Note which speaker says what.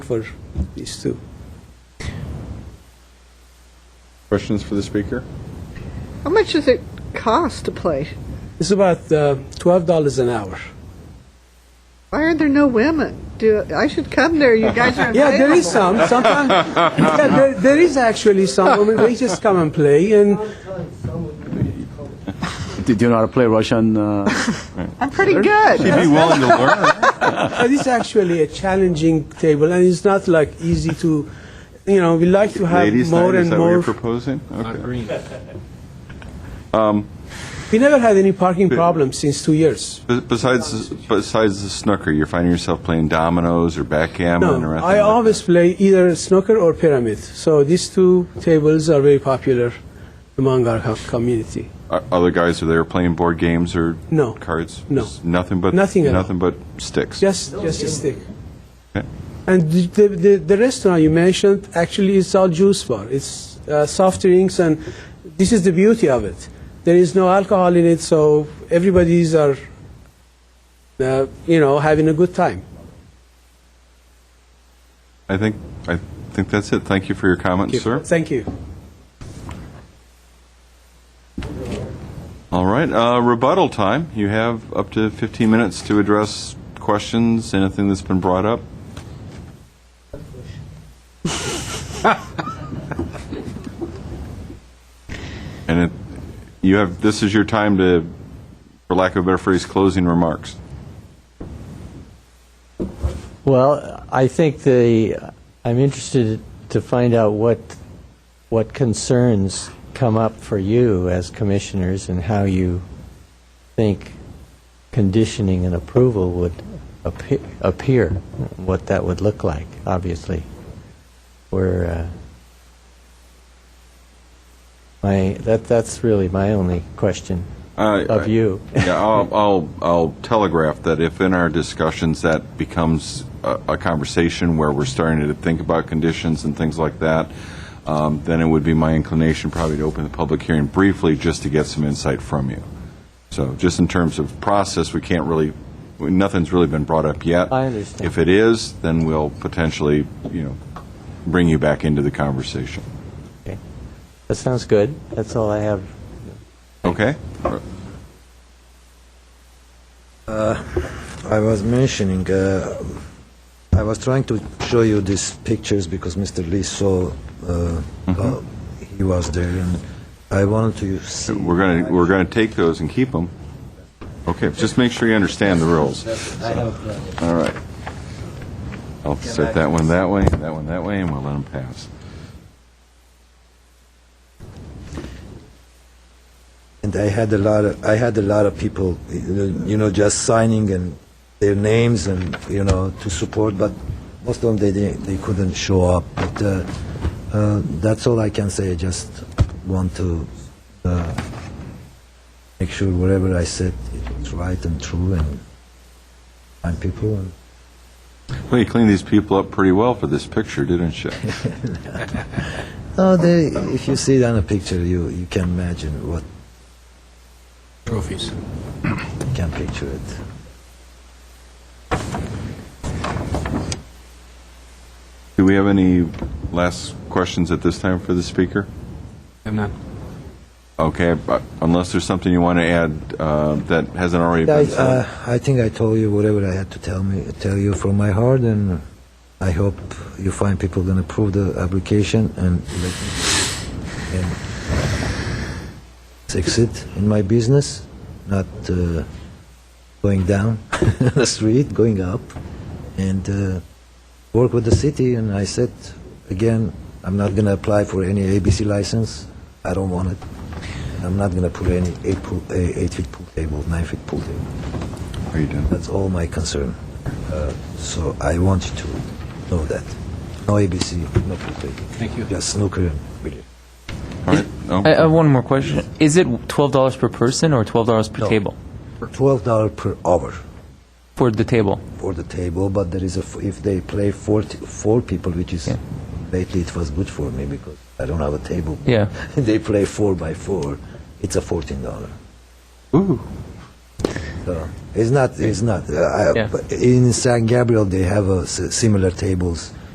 Speaker 1: for these two.
Speaker 2: Questions for the speaker?
Speaker 3: How much does it cost to play?
Speaker 1: It's about uh, twelve dollars an hour.
Speaker 3: Why are there no women? Do I should come there? You guys are
Speaker 1: Yeah, there is
Speaker 3: available.
Speaker 1: some. Sometimes, yeah, there, there is actually some women. They just come and play, and
Speaker 4: Do you know how to play Russian? Uh,
Speaker 3: I'm pretty good.
Speaker 2: She'd be willing to learn.
Speaker 1: it is actually a challenging table, and it's not like easy to, you know, we like to have
Speaker 2: Ladies'
Speaker 1: more
Speaker 2: night, is
Speaker 1: and
Speaker 2: that what you're
Speaker 1: more.
Speaker 2: proposing? Okay.
Speaker 1: We never had any parking problems since two years.
Speaker 2: Be- Besides, besides the snooker, you're finding yourself playing dominoes or backgammon
Speaker 1: No,
Speaker 2: or anything?
Speaker 1: I
Speaker 2: like
Speaker 1: always play either snooker or pyramid. So these two tables are very popular among our co- community.
Speaker 2: that? O- Other guys are there playing board games or?
Speaker 1: No.
Speaker 2: Cards?
Speaker 1: No.
Speaker 2: Just Nothing but?
Speaker 1: Nothing at all.
Speaker 2: Nothing but sticks?
Speaker 1: Just, just a stick.
Speaker 2: Okay.
Speaker 1: And the, the, the restaurant you mentioned actually is all juice bar. It's uh, soft drinks, and this is the beauty of it. There is no alcohol in it, so everybody's are, uh, you know, having a good time.
Speaker 2: I think, I think that's it. Thank you for your comments, sir.
Speaker 1: Thank you.
Speaker 2: All right, uh, rebuttal time. You have up to 15 minutes to address questions, anything that's been brought up. And it, you have, this is your time to, for lack of a better phrase, closing remarks.
Speaker 5: Well, I think the, I'm interested to find out what, what concerns come up for you as commissioners and how you think conditioning and approval would appe- appear, what that would look like, obviously. Where, uh, my, that, that's really my only question
Speaker 2: I-
Speaker 5: of you.
Speaker 2: Yeah, I'll, I'll, I'll telegraph that if in our discussions that becomes a, a conversation where we're starting to think about conditions and things like that, um, then it would be my inclination probably to open the public hearing briefly just to get some insight from you. So just in terms of process, we can't really, we- nothing's really been brought up yet.
Speaker 5: I understand.
Speaker 2: If it is, then we'll potentially, you know, bring you back into the conversation.
Speaker 5: Okay. That sounds good. That's all I have.
Speaker 2: Okay?
Speaker 6: I was mentioning, uh, I was trying to show you these pictures because Mr. Lee saw uh, how he was there, and I wanted to see.
Speaker 2: We're going to, we're going to take those and keep them. Okay, just make sure you understand the rules. All right. I'll set that one that way, that one that way, and we'll let them pass.
Speaker 6: And I had a lot of, I had a lot of people, you know, just signing and their names and, you know, to support, but most of them, they, they, they couldn't show up. But uh, uh, that's all I can say. I just want to uh, make sure whatever I said is right and true and find people. And
Speaker 2: Well, you cleaned these people up pretty well for this picture, didn't you?
Speaker 6: No, they, if you see it on a picture, you, you can imagine what
Speaker 1: Trophies.
Speaker 6: you can picture it.
Speaker 2: Do we have any last questions at this time for the speaker? Okay, but unless there's something you want to add uh, that hasn't already been
Speaker 6: I,
Speaker 2: said.
Speaker 6: uh, I think I told you whatever I had to tell me tell you from my heart, and I hope you find people going to approve the application and let me and succeed in my business, not uh, going down the street, going up, and uh, work with the city. And I said again, I'm not going to apply for any ABC license. I don't want it. I'm not going to put any eight, pool, eight, eight feet pool table, nine feet pool table.
Speaker 2: Are you done?
Speaker 6: That's all my concern. Uh, So I want you to know that. No ABC, no pool Thank you. Just snooker and billiard.
Speaker 2: All right. No?
Speaker 7: I I have one more question. Is it $12 per person or $12 per
Speaker 6: No.
Speaker 7: table?
Speaker 6: Twelve dollar per hour
Speaker 7: For the table?
Speaker 6: for the table, but there is a f- if they play four t- four people, which is lately it was good for me because I don't have a table.
Speaker 7: Yeah.
Speaker 6: they play four by four. It's a fourteen dollar.
Speaker 2: Ooh.
Speaker 6: So it's not. It's not. Uh, I,
Speaker 7: Yeah.
Speaker 6: but In San Gabriel, they have a s- uh, similar tables.